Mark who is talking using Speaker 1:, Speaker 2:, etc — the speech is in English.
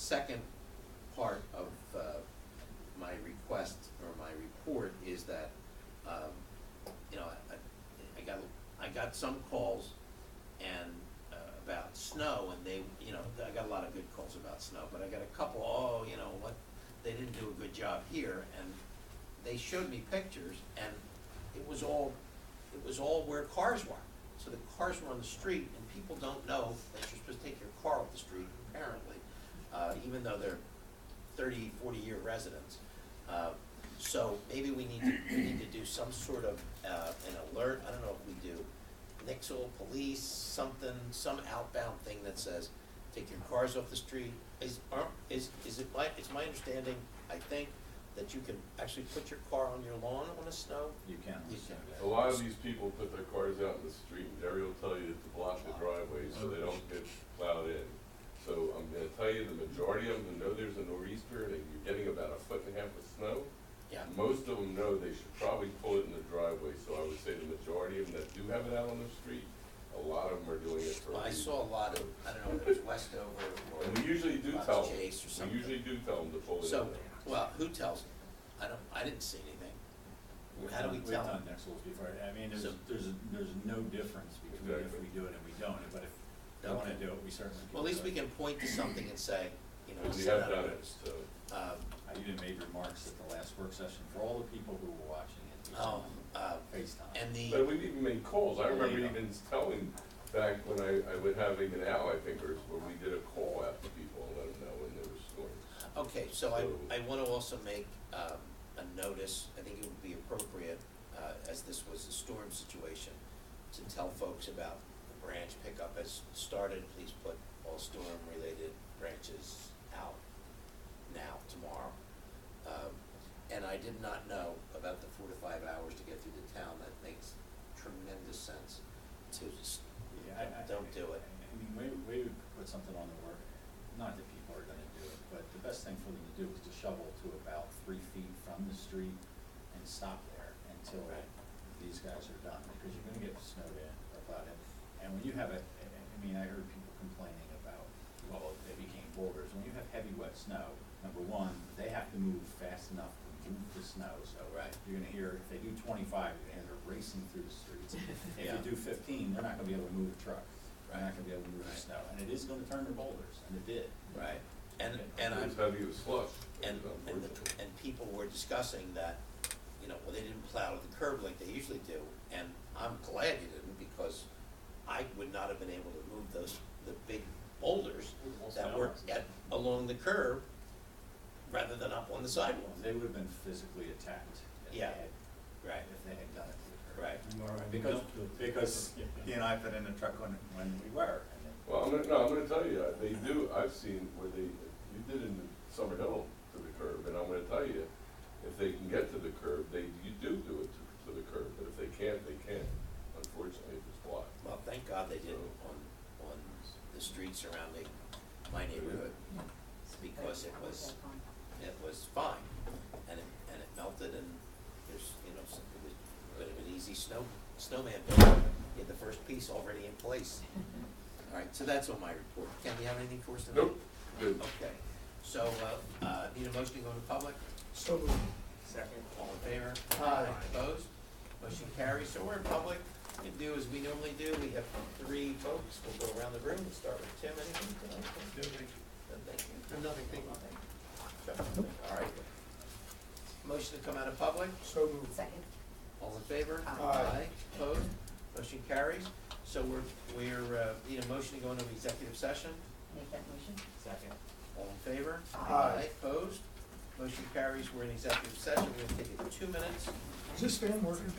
Speaker 1: second part of uh, my request or my report is that, um, you know, I- I- I got, I got some calls and uh, about snow and they, you know, I got a lot of good calls about snow, but I got a couple, oh, you know, what, they didn't do a good job here and they showed me pictures and it was all, it was all where cars were. So the cars were on the street and people don't know that you're supposed to take your car off the street apparently, uh, even though they're 30, 40 year residents. Uh, So maybe we need to, we need to do some sort of, uh, an alert, I don't know if we do Nixle, police, something, some outbound thing that says, take your cars off the street. Is, are, is, is it my, it's my understanding, I think, that you can actually put your car on your lawn on a snow?
Speaker 2: You can.
Speaker 1: You
Speaker 2: so
Speaker 1: can.
Speaker 3: A lot of these people put their cars out in the street, and Jerry will tell you to block the driveway so they don't get plowed in. So I'm gonna tell you, the majority of them know there's a nor'easter, and you're getting about a foot and a half of snow.
Speaker 1: Yeah,
Speaker 3: Most of them know they should probably pull it in the driveway, so I would say the majority of them that do have it out on the street, a lot of them are doing it for a
Speaker 1: well, I
Speaker 3: reason.
Speaker 1: saw a lot of, I don't know if it was Westover or.
Speaker 3: And we usually do
Speaker 1: Lots of
Speaker 3: tell them,
Speaker 1: chase or something.
Speaker 3: we usually do tell them to pull it in
Speaker 1: So,
Speaker 3: there.
Speaker 1: well, who tells? I don't, I didn't see anything.
Speaker 2: we've
Speaker 1: How do
Speaker 2: done-
Speaker 1: we tell
Speaker 2: We've done Nexels before, I mean, there's,
Speaker 1: So-
Speaker 2: there's, there's no difference between if
Speaker 3: Exactly.
Speaker 2: we do it and we don't, but if we wanna
Speaker 1: Okay.
Speaker 2: do it, we certainly can.
Speaker 1: Well, at least
Speaker 2: do
Speaker 1: we
Speaker 2: it.
Speaker 1: can point to something and say, you know,
Speaker 3: And we
Speaker 1: send out
Speaker 3: have
Speaker 1: a
Speaker 3: done it,
Speaker 1: notice.
Speaker 3: so,
Speaker 1: Um,
Speaker 2: I even made remarks at the last work session for all the people who were watching it. we
Speaker 1: oh,
Speaker 2: sent
Speaker 1: uh,
Speaker 2: FaceTime.
Speaker 1: and
Speaker 3: but
Speaker 1: the,
Speaker 3: we've even made calls, I
Speaker 2: There you
Speaker 3: remember
Speaker 2: go.
Speaker 3: even telling, back when I, I was having an hour, I think, or, where we did a call out to people and let them know when there were storms.
Speaker 1: okay, so I, I wanna also make, um, a notice, I think it would be appropriate, uh, as this was a storm situation, to tell folks about the branch pickup has started, please put all storm-related branches out now, tomorrow. Um, and I did not know about the four to five hours to get through the town, that makes tremendous sense to just,
Speaker 2: Yeah, I- I-
Speaker 1: don't do it.
Speaker 2: I mean, we, we would put something on the work, not that people are gonna do it, but the best thing for them to do is to shovel to about three feet from the street and stop there until
Speaker 1: Right.
Speaker 2: these guys are done, because you're gonna get snowed in or plowed in. And when you have a, I I mean, I heard people complaining about, well, they became boulders, when you have heavy wet snow, number one, they have to move fast enough to move the snow, so.
Speaker 1: Right.
Speaker 2: You're gonna hear, if they do twenty-five, you're gonna hear they're racing through the streets. If
Speaker 1: Yeah.
Speaker 2: you do fifteen, they're not gonna be able to move a truck. They're not gonna be able to move
Speaker 1: Right.
Speaker 2: the snow, and it is gonna turn to boulders, and it did.
Speaker 1: right, and, and
Speaker 3: It
Speaker 1: I'm,
Speaker 3: was heavy with slush.
Speaker 1: And, and,
Speaker 3: unfortunately.
Speaker 1: the- and people were discussing that, you know, well, they didn't plow the curb like they usually do, and I'm glad you didn't, because I would not have been able to move those, the big boulders that were at, along the curb, rather than up on the sidewalk.
Speaker 2: They would've been physically attacked if they
Speaker 1: Yeah.
Speaker 2: had,
Speaker 1: Right.
Speaker 2: if they had done it. to the curb.
Speaker 1: Right,
Speaker 2: Because, because he and I put in a truck when, when we were, and then
Speaker 3: Well, I'm gonna, no, I'm gonna tell you, uh, they do, I've seen where they, you did in Summer Hill to the curb, and I'm gonna tell you, if they can get to the curb, they, you do do it to, to the curb, but if they can't, they can't, unfortunately, if it's blocked.
Speaker 1: well, thank God they didn't on, on the street surrounding my neighborhood, because it was, it was fine, and it, and it melted, and there's, you know, some- it was a bit of an easy snow, snowman build. You had the first piece already in place. All right, so that's on my report. Ken, you have anything for us tonight?
Speaker 3: Nope, good.
Speaker 1: Okay, so, uh, uh, need a motion to go to public?
Speaker 4: So moved. Second.
Speaker 1: All in favor? Aye. Opposed? Motion carries, so we're in public. We can do as we normally do, we have three folks, we'll go around the room, we'll start with Tim, anything tonight?
Speaker 4: No, thank you.
Speaker 1: No, Thank you.
Speaker 4: Nothing, thank you.
Speaker 1: Nothing. All right. Motion to come out of public?
Speaker 4: So moved.
Speaker 5: Second.
Speaker 1: All in favor?
Speaker 5: Aye.
Speaker 1: Opposed? Motion carries. So we're, we're, uh, need a motion to go into executive session.
Speaker 5: Make that motion?
Speaker 4: Second.
Speaker 1: All in favor?
Speaker 5: Aye.
Speaker 1: Opposed? Motion carries. We're in executive session. We're gonna take it two minutes.
Speaker 4: Is this fan working?